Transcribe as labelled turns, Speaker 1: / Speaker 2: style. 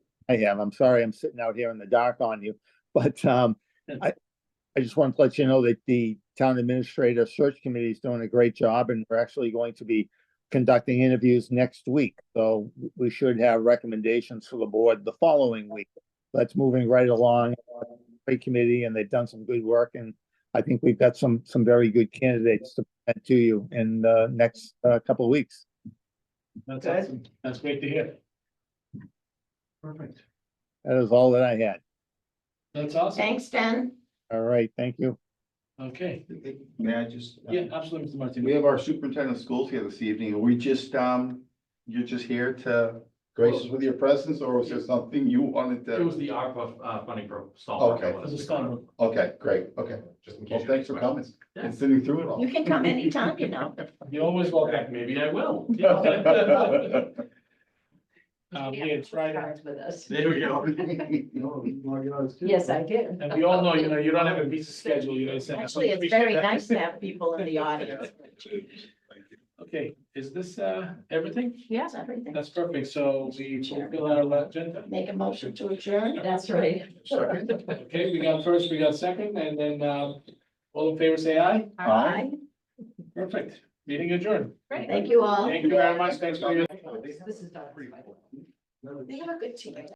Speaker 1: I have. I'm sorry, I'm sitting out here in the dark on you, but um, I, I just wanted to let you know that the town administrator search committee is doing a great job and we're actually going to be conducting interviews next week. So we should have recommendations for the board the following week. That's moving right along. Great committee and they've done some good work and I think we've got some, some very good candidates to present to you in the next uh, couple of weeks.
Speaker 2: That's
Speaker 3: Okay.
Speaker 2: awesome. That's great to hear. Perfect.
Speaker 1: That is all that I had.
Speaker 2: That's awesome.
Speaker 3: Thanks, Ben.
Speaker 1: All right, thank you.
Speaker 2: Okay.
Speaker 4: May I just?
Speaker 2: Yeah, absolutely, Mr.
Speaker 4: We
Speaker 2: Martinez.
Speaker 4: have our superintendent of schools here this evening. Are we just, um, you're just here to grace us with your presence or was there something you wanted
Speaker 5: It was
Speaker 4: to?
Speaker 5: the ARPA uh, funding pro. stall.
Speaker 4: Okay.
Speaker 2: As a stall.
Speaker 4: Okay, great, okay.
Speaker 5: Just in case.
Speaker 4: Well, thanks for coming
Speaker 5: Yeah.
Speaker 4: and sitting through it all.
Speaker 3: You can come anytime, you know.
Speaker 2: You're always
Speaker 5: In fact,
Speaker 2: welcome.
Speaker 5: maybe I will. Yeah.
Speaker 4: There
Speaker 2: Um, yeah, it's Friday.
Speaker 3: Cards With us.
Speaker 5: we go.
Speaker 3: Yes, I did.
Speaker 2: And we all know, you know, you don't have a busy schedule, you know. it's-
Speaker 3: Actually, it's very nice to have people in the audience.
Speaker 2: Okay, is this, uh, everything?
Speaker 3: Yes, everything.
Speaker 2: That's perfect. So we fulfill our agenda.
Speaker 3: Make a motion to adjourn. That's right.
Speaker 4: Second.
Speaker 2: Okay, we got first, we got second, and then, um, all in favor, say aye.
Speaker 3: All right.
Speaker 2: Perfect. Meeting adjourned.
Speaker 3: Thank you all.
Speaker 2: Thank you very much. Thanks for your.
Speaker 3: This is. They have a good team.